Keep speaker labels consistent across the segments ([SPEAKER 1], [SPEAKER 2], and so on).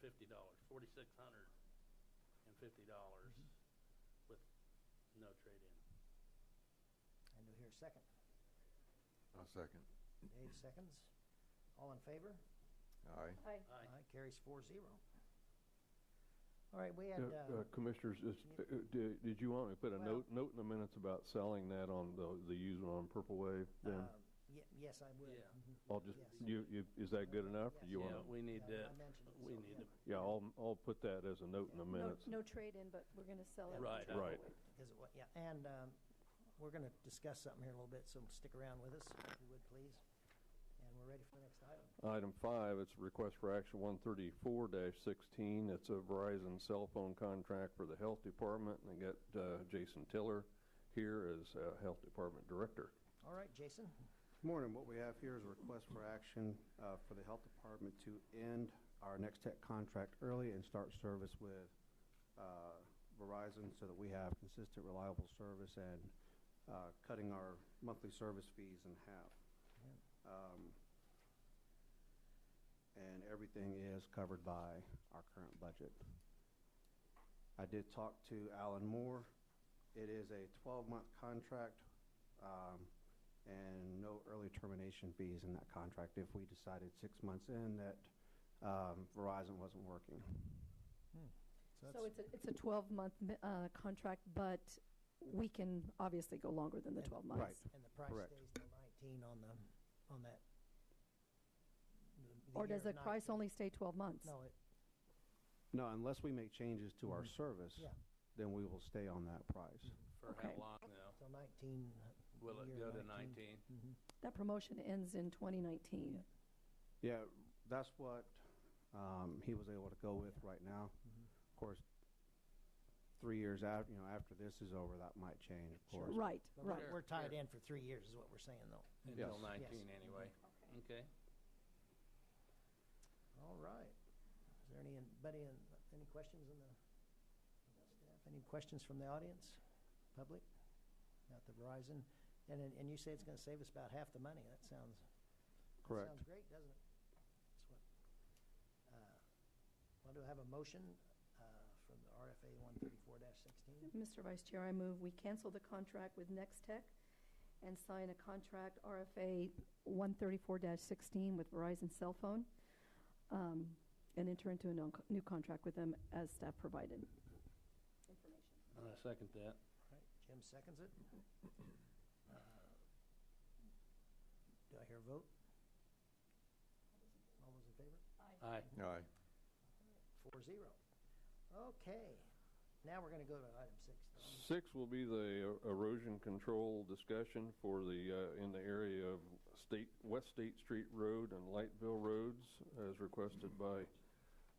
[SPEAKER 1] fifty dollars, forty-six hundred and fifty dollars with no trade-in.
[SPEAKER 2] And do hear a second.
[SPEAKER 3] I'll second.
[SPEAKER 2] Dave seconds. All in favor?
[SPEAKER 3] Aye.
[SPEAKER 4] Aye.
[SPEAKER 1] Aye.
[SPEAKER 2] Carries four zero. All right, we had,
[SPEAKER 5] Yeah,
[SPEAKER 2] uh,
[SPEAKER 5] uh, Commissioners, is-
[SPEAKER 2] yeah.
[SPEAKER 5] uh, di- did you want me to put a
[SPEAKER 2] Well-
[SPEAKER 5] note, note in the minutes about selling that on the, the used one on Purple Wave
[SPEAKER 2] uh,
[SPEAKER 5] then?
[SPEAKER 2] ye- yes, I would.
[SPEAKER 1] Yeah.
[SPEAKER 2] Mhm.
[SPEAKER 5] I'll just,
[SPEAKER 2] yes.
[SPEAKER 5] you, you, is that good enough? or
[SPEAKER 2] Yes.
[SPEAKER 5] You
[SPEAKER 1] Yeah,
[SPEAKER 5] want to?
[SPEAKER 1] we need
[SPEAKER 2] Yeah, I mentioned
[SPEAKER 1] that,
[SPEAKER 2] it,
[SPEAKER 1] we
[SPEAKER 2] so,
[SPEAKER 1] need to,
[SPEAKER 2] yeah.
[SPEAKER 5] Yeah, I'll, I'll put that as a note in the
[SPEAKER 4] No,
[SPEAKER 5] minutes.
[SPEAKER 4] no trade-in, but we're gonna sell it.
[SPEAKER 1] Right.
[SPEAKER 5] Right.
[SPEAKER 2] Because, it wa- yeah, and um, we're going to discuss something here in a little bit, so stick around with us, if you would, please. And we're ready for the next item.
[SPEAKER 5] Item five, it's a request for action 134-16. It's a Verizon cell phone contract for the Health Department, and I got uh, Jason Tiller here as uh, Health Department Director.
[SPEAKER 2] All right, Jason,
[SPEAKER 6] Morning, what we have here is a request for action uh, for the Health Department to end our Next Tech contract early and start service with uh, Verizon so that we have consistent, reliable service and uh, cutting our monthly service fees in half. Um, And everything is covered by our current budget. I did talk to Alan Moore. It is a 12-month contract um, and no early termination fees in that contract if we decided six months in that um, Verizon wasn't working.
[SPEAKER 4] So it's a, it's a 12-month uh, contract, but we can obviously go longer than the 12
[SPEAKER 6] Right.
[SPEAKER 4] months.
[SPEAKER 2] and the price
[SPEAKER 6] Correct.
[SPEAKER 2] stays till 19 on the, on that. the- the
[SPEAKER 4] Or does
[SPEAKER 2] year
[SPEAKER 4] the
[SPEAKER 2] 19.
[SPEAKER 4] price only stay 12 months?
[SPEAKER 2] No, it,
[SPEAKER 6] No, unless we make changes to our service,
[SPEAKER 2] Mm-hmm. yeah, Mm-hmm.
[SPEAKER 6] then we will stay on that price.
[SPEAKER 1] for how
[SPEAKER 4] Okay.
[SPEAKER 1] long now?
[SPEAKER 2] till 19. uh,
[SPEAKER 1] Will it
[SPEAKER 2] year
[SPEAKER 1] go to nineteen?
[SPEAKER 2] Mhm.
[SPEAKER 4] That promotion ends in 2019.
[SPEAKER 6] Yeah, that's what um, he was able to go with right now.
[SPEAKER 2] Mhm.
[SPEAKER 6] Of course, three years out, you know, after this is over, that might change, of
[SPEAKER 2] Sure.
[SPEAKER 6] course.
[SPEAKER 4] Right,
[SPEAKER 2] But
[SPEAKER 4] right.
[SPEAKER 1] Sure,
[SPEAKER 2] we're- we're tied
[SPEAKER 1] sure.
[SPEAKER 2] in for three years is what we're saying, though.
[SPEAKER 1] Until
[SPEAKER 6] Yes.
[SPEAKER 1] nineteen
[SPEAKER 2] Yes.
[SPEAKER 1] anyway. Okay.
[SPEAKER 2] All right. Is there any, anybody, in- any questions in the, staff? any questions from the audience, public, about the Verizon? And, and you say it's going to save us about half the money. That sounds, that
[SPEAKER 6] Correct.
[SPEAKER 2] sounds great, doesn't it? That's what, uh, well, do I have a motion uh, from the RFA 134-16?
[SPEAKER 4] Mr. Vice Chair, I move we cancel the contract with Next Tech and sign a contract RFA 134-16 with Verizon Cell Phone, um, and enter into a non- new contract with them as staff provided. Information.
[SPEAKER 1] And I second that.
[SPEAKER 2] All right, Jim seconds it. Uh, Do I hear a vote? All those in favor?
[SPEAKER 1] Aye.
[SPEAKER 3] Aye.
[SPEAKER 2] Four zero. Okay, now we're gonna go to item six.
[SPEAKER 5] Six will be the er, erosion control discussion for the, uh, in the area of State, West State Street Road and Lightville Roads, as requested by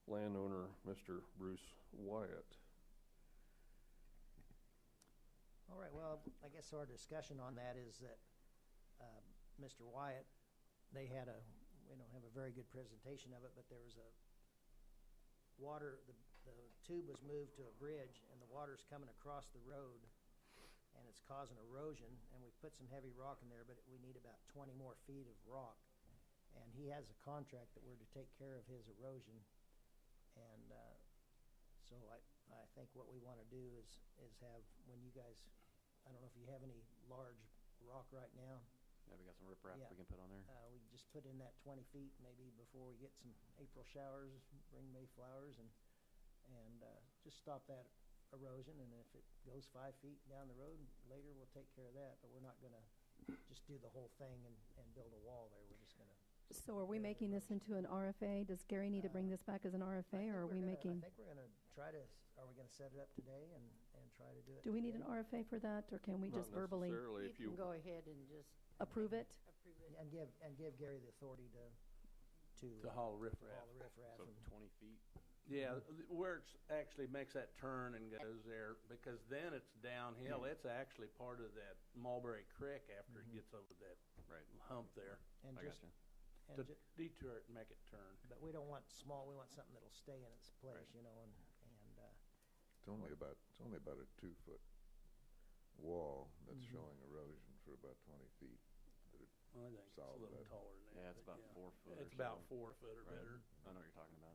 [SPEAKER 5] landowner Mr. Bruce Wyatt.
[SPEAKER 2] All right, well, I guess our discussion on that is that, uh, Mr. Wyatt, they had a, we don't have a very good presentation of it, but there was a water, the, the tube was moved to a bridge and the water's coming across the road and it's causing erosion and we put some heavy rock in there, but we need about twenty more feet of rock. And he has a contract that we're to take care of his erosion. And, uh, so I, I think what we want to do is, is have, when you guys, I don't know if you have any large rock right now,
[SPEAKER 7] Yeah, we got some riprap
[SPEAKER 2] Yeah.
[SPEAKER 7] we can put on there.
[SPEAKER 2] uh, we just put in that twenty feet maybe before we get some April showers, bring May flowers and, and, uh, just stop that erosion and if it goes five feet down the road, later we'll take care of that, but we're not gonna just do the whole thing and, and build a wall there, we're just gonna.
[SPEAKER 4] So are we making this into an RFA? Does Gary need to bring this back as an
[SPEAKER 2] I
[SPEAKER 4] RFA,
[SPEAKER 2] think
[SPEAKER 4] or are
[SPEAKER 2] we're
[SPEAKER 4] we
[SPEAKER 2] gonna- I
[SPEAKER 4] making,
[SPEAKER 2] think we're gonna try to, are we gonna set it up today and, and try to do it?
[SPEAKER 4] do we need an
[SPEAKER 2] today?
[SPEAKER 4] RFA for that, or can we
[SPEAKER 5] Not
[SPEAKER 4] just verbally
[SPEAKER 5] necessarily if
[SPEAKER 8] You can
[SPEAKER 5] you-
[SPEAKER 8] go ahead and just
[SPEAKER 4] approve it?
[SPEAKER 8] approve
[SPEAKER 2] Yeah,
[SPEAKER 8] it.
[SPEAKER 2] And give, and give Gary the authority to, to.
[SPEAKER 1] To haul
[SPEAKER 2] to haul
[SPEAKER 1] riffraff.
[SPEAKER 2] the riffraff
[SPEAKER 7] So
[SPEAKER 2] and,
[SPEAKER 7] 20 feet.
[SPEAKER 1] Yeah, th- where it's actually makes that turn and goes there, because then it's downhill. It's actually part of that Mulberry Creek after it gets over that
[SPEAKER 7] Right.
[SPEAKER 1] hump there.
[SPEAKER 2] and
[SPEAKER 7] I
[SPEAKER 2] just,
[SPEAKER 7] gotcha.
[SPEAKER 2] and
[SPEAKER 1] To
[SPEAKER 2] ju-
[SPEAKER 1] detour it and make it turn.
[SPEAKER 2] but we don't want small, we want something that'll stay in its place,
[SPEAKER 7] Right.
[SPEAKER 2] you know, and, and, uh,
[SPEAKER 3] It's only about, it's only about a two-foot wall that's showing erosion for about 20 feet.
[SPEAKER 1] I think it's a
[SPEAKER 3] Solid
[SPEAKER 1] little
[SPEAKER 3] bed.
[SPEAKER 1] taller than that.
[SPEAKER 7] Yeah, it's
[SPEAKER 1] but
[SPEAKER 7] about four foot
[SPEAKER 1] It's
[SPEAKER 7] or
[SPEAKER 1] about
[SPEAKER 7] so.
[SPEAKER 1] four foot or
[SPEAKER 7] Right.
[SPEAKER 1] better.
[SPEAKER 7] I know what you're talking